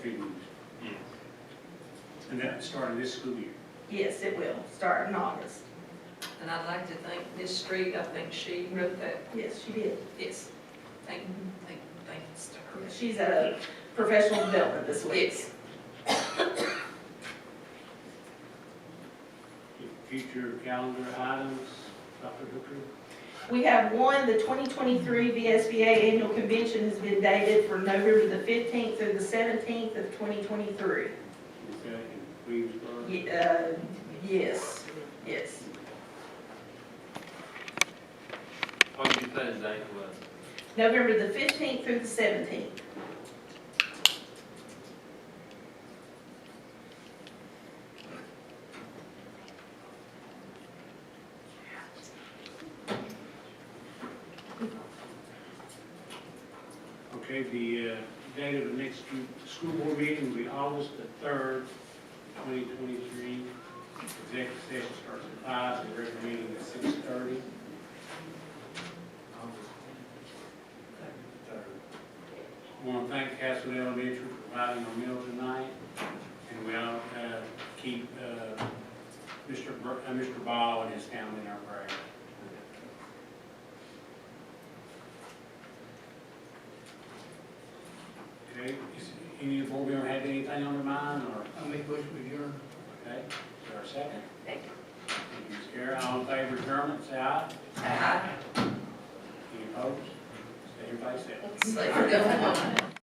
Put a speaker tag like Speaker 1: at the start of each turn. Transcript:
Speaker 1: And that started this school year.
Speaker 2: Yes, it will, start in August.
Speaker 3: And I'd like to thank Ms. Street, I think she wrote that,
Speaker 2: Yes, she did.
Speaker 3: yes, thank, thank, thanks to
Speaker 2: She's at a professional development this
Speaker 3: her.
Speaker 2: week.
Speaker 3: Yes,
Speaker 1: Future calendar items, Dr. Hooker?
Speaker 2: We have one, the 2023 VSBA Annual Convention has been dated for November the 15th through the 17th of 2023.
Speaker 1: Okay, in Greensburg.
Speaker 2: Ye- uh, Yes, yes.
Speaker 4: What did you say the date was?
Speaker 2: November the 15th through the 17th.
Speaker 1: Okay, the uh, date of the next school- school board meeting will be August the 3rd, 2023. Executive session starts at five. the regular meeting at 6:30. I want to thank Castle Elementary for providing our meal tonight, and we'll uh, keep uh, Mr. Bur- uh, Mr. Ball and his family in our prayer. Okay, is any of the board member have anything on their mind, or,
Speaker 5: I make motion with your,
Speaker 1: okay, is there a second?
Speaker 3: thank
Speaker 1: Thank you, Ms. Karen, all in favor of adjournment, say aye.
Speaker 3: you. Aye.
Speaker 1: Any opposed? Stay everybody safe.
Speaker 3: So, go on.